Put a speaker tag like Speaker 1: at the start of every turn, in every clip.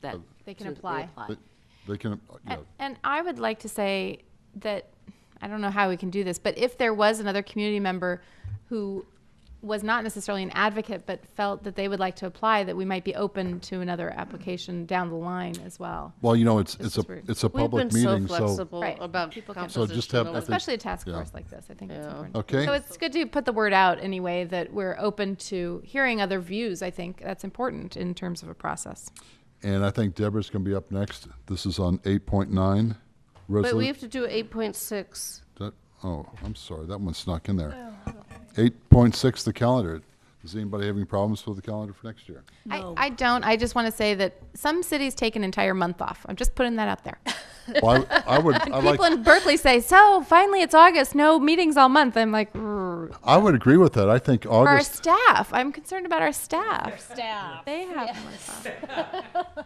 Speaker 1: that.
Speaker 2: They can
Speaker 1: to
Speaker 2: apply.
Speaker 1: reapply.
Speaker 3: They- They can, uh, yeah,
Speaker 2: And, and I would like to say that, I don't know how we can do this, but if there was another community member who was not necessarily an advocate, but felt that they would like to apply, that we might be open to another application down the line as well.
Speaker 3: well, you know, it's,
Speaker 2: This
Speaker 3: it's a,
Speaker 2: is rude.
Speaker 3: it's a
Speaker 4: We've been
Speaker 3: public
Speaker 4: so
Speaker 3: meeting, so,
Speaker 4: flexible
Speaker 2: Right.
Speaker 4: about
Speaker 2: People can-
Speaker 3: So just have
Speaker 4: compositional
Speaker 3: I think-
Speaker 2: Especially a task
Speaker 3: yeah.
Speaker 2: force like this, I think it's
Speaker 4: Yeah.
Speaker 2: important.
Speaker 3: okay?
Speaker 2: So it's good to put the word out anyway that we're open to hearing other views. I think that's important in terms of a process.
Speaker 3: And I think Deborah's going to be up next. This is on 8.9.
Speaker 4: But we
Speaker 3: Resolu-
Speaker 4: have to do eight point six.
Speaker 3: that- Oh, I'm sorry, that one snuck in
Speaker 4: Oh,
Speaker 3: there. 8.6, the calendar. Does anybody have any problems with the calendar for next year?
Speaker 2: I, I don't, I just want to say that some cities take an entire month off. I'm just putting that out there.
Speaker 3: Well, I I would, I
Speaker 2: People
Speaker 3: like,
Speaker 2: in Berkeley say, "So finally, it's August. No meetings all month." I'm like, "Grr."
Speaker 3: I would agree with that. I think
Speaker 2: for our
Speaker 3: August,
Speaker 2: staff, I'm concerned about our staff.
Speaker 5: Staff.
Speaker 2: They have more fun.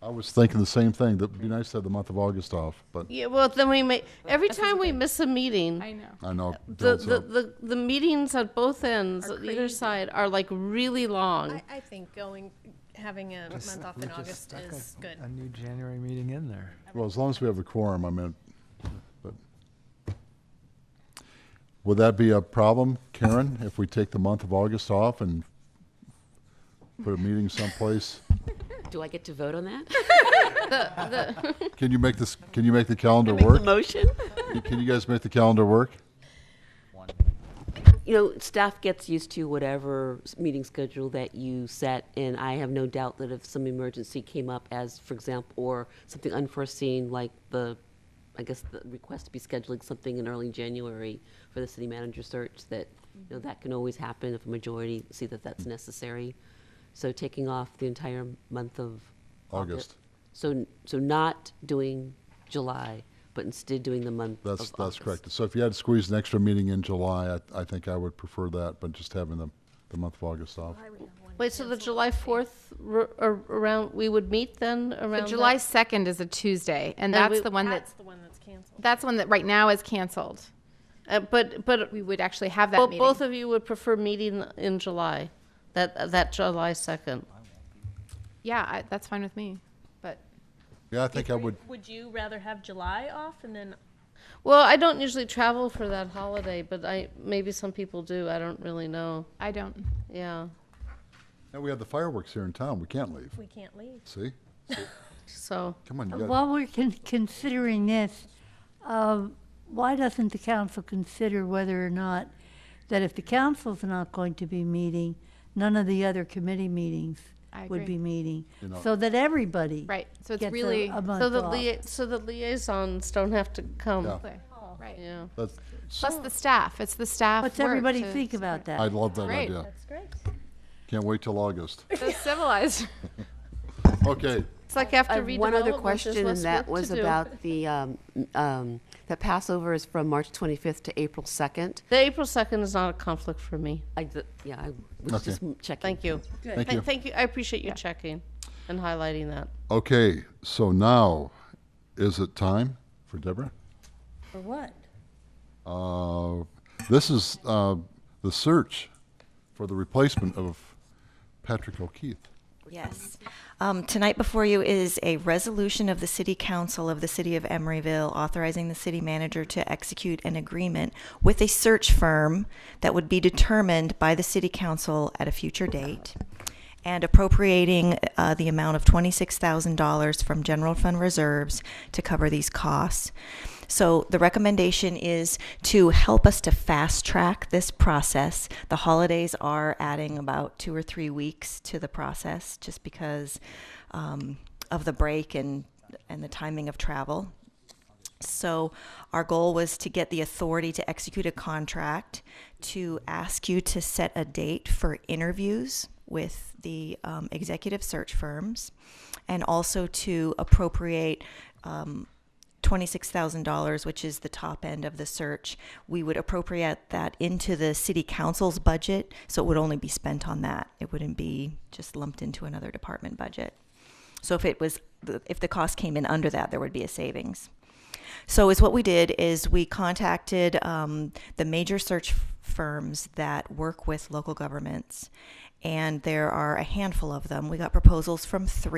Speaker 3: I was thinking the same thing. That would be nice to have the month of August off, but
Speaker 4: Yeah, well, then we may, every time we miss a meeting,
Speaker 2: I know.
Speaker 3: I know. it
Speaker 4: the,
Speaker 3: builds
Speaker 4: the,
Speaker 3: up.
Speaker 4: the, the meetings at both ends, either side, are like really long.
Speaker 5: I, I think going, having a month off
Speaker 6: We
Speaker 5: in
Speaker 6: just
Speaker 5: August
Speaker 6: stuck a-
Speaker 5: is good.
Speaker 6: A new January meeting in there.
Speaker 3: Well, as long as we have a quorum, I mean, but. Would that be a problem, Karen, if we take the month of August off and put a meeting someplace?
Speaker 1: Do I get to vote on that?
Speaker 3: Can you make this, can you make the calendar
Speaker 1: Make the
Speaker 3: work?
Speaker 1: motion?
Speaker 3: Can you guys make the calendar work?
Speaker 1: You know, staff gets used to whatever s- meeting schedule that you set, and I have no doubt that if some emergency came up as, for example, or something unforeseen, like the, I guess, the request to be scheduling something in early January for the city manager search, that, you know, that can always happen if a majority see that that's necessary. So taking off the entire month of.
Speaker 3: August.
Speaker 1: So, n- so not doing July, but instead doing the month of
Speaker 3: That's, that's
Speaker 1: August.
Speaker 3: correct. So if you had to squeeze an extra meeting in July, I, I think I would prefer that, but just having the, the month of August off.
Speaker 4: Wait, so the July fourth, r- ar- around, we would meet then around?
Speaker 2: So July
Speaker 4: that?
Speaker 2: 2nd is a Tuesday, and that's
Speaker 4: we-
Speaker 2: the one that
Speaker 5: That's the one that's canceled.
Speaker 2: that's one that right now is canceled.
Speaker 4: Uh, but, but,
Speaker 2: We would actually have that
Speaker 4: bo-
Speaker 2: meeting.
Speaker 4: both of you would prefer meeting in July, that, that July second.
Speaker 2: yeah, I, that's fine with me. But
Speaker 3: Yeah, I think I would,
Speaker 5: Would you rather have July off and then
Speaker 4: Well, I don't usually travel for that holiday, but I, maybe some people do, I don't really know,
Speaker 2: I don't.
Speaker 4: yeah.
Speaker 3: now we have the fireworks here in town. We can't leave.
Speaker 5: we can't leave?
Speaker 3: See?
Speaker 4: So,
Speaker 3: Come on, you gotta,
Speaker 7: While we're con- considering this, um, why doesn't the council consider whether or not, that if the council's not going to be meeting, none of the other committee meetings
Speaker 2: I
Speaker 7: would
Speaker 2: agree.
Speaker 7: be meeting?
Speaker 3: You know-
Speaker 7: So that everybody.
Speaker 2: Right. So it's
Speaker 7: gets a-
Speaker 2: really
Speaker 7: a month
Speaker 4: so the
Speaker 7: off.
Speaker 4: lia- so the liaisons don't have to come.
Speaker 3: Yeah.
Speaker 2: right.
Speaker 4: Yeah.
Speaker 3: that's,
Speaker 2: Plus the staff. It's the staff.
Speaker 7: What's
Speaker 2: work
Speaker 7: everybody
Speaker 2: to
Speaker 7: think about
Speaker 3: I
Speaker 7: that?
Speaker 3: love that
Speaker 2: Great.
Speaker 3: idea.
Speaker 5: That's great.
Speaker 3: Can't wait till August.
Speaker 2: So civilized.
Speaker 3: Okay,
Speaker 4: It's like
Speaker 1: I
Speaker 4: after
Speaker 1: have one other
Speaker 4: redevelopment, there's
Speaker 1: question, and
Speaker 4: less work
Speaker 1: that was
Speaker 4: to do.
Speaker 1: about the, um, um, that Passover is from March 25th to April 2nd.
Speaker 4: The April second is not a conflict for me.
Speaker 1: I, d- yeah, I was
Speaker 3: Okay.
Speaker 1: just m- checking.
Speaker 4: Thank you.
Speaker 3: thank you.
Speaker 4: Th- Thank you, I appreciate you checking and highlighting that.
Speaker 3: Okay, so now, is it time for Deborah?
Speaker 7: For what?
Speaker 3: Uh, This is uh, the search for the replacement of Patrick O'Keefe.
Speaker 8: Yes. Um, Tonight before you is a resolution of the City Council of the City of Emeryville authorizing the city manager to execute an agreement with a search firm that would be determined by the City Council at a future date and appropriating uh, the amount of $26,000 from general fund reserves to cover these costs. So the recommendation is to help us to fast track this process. The holidays are adding about two or three weeks to the process just because um, of the break and, and the timing of travel. So our goal was to get the authority to execute a contract, to ask you to set a date for interviews with the um, executive search firms, and also to appropriate um, $26,000, which is the top end of the search. We would appropriate that into the city council's budget, so it would only be spent on that. It wouldn't be just lumped into another department budget. So if it was, if the cost came in under that, there would be a savings. So is what we did is we contacted um, the major search f- firms that work with local governments, and there are a handful of them. We got proposals from three.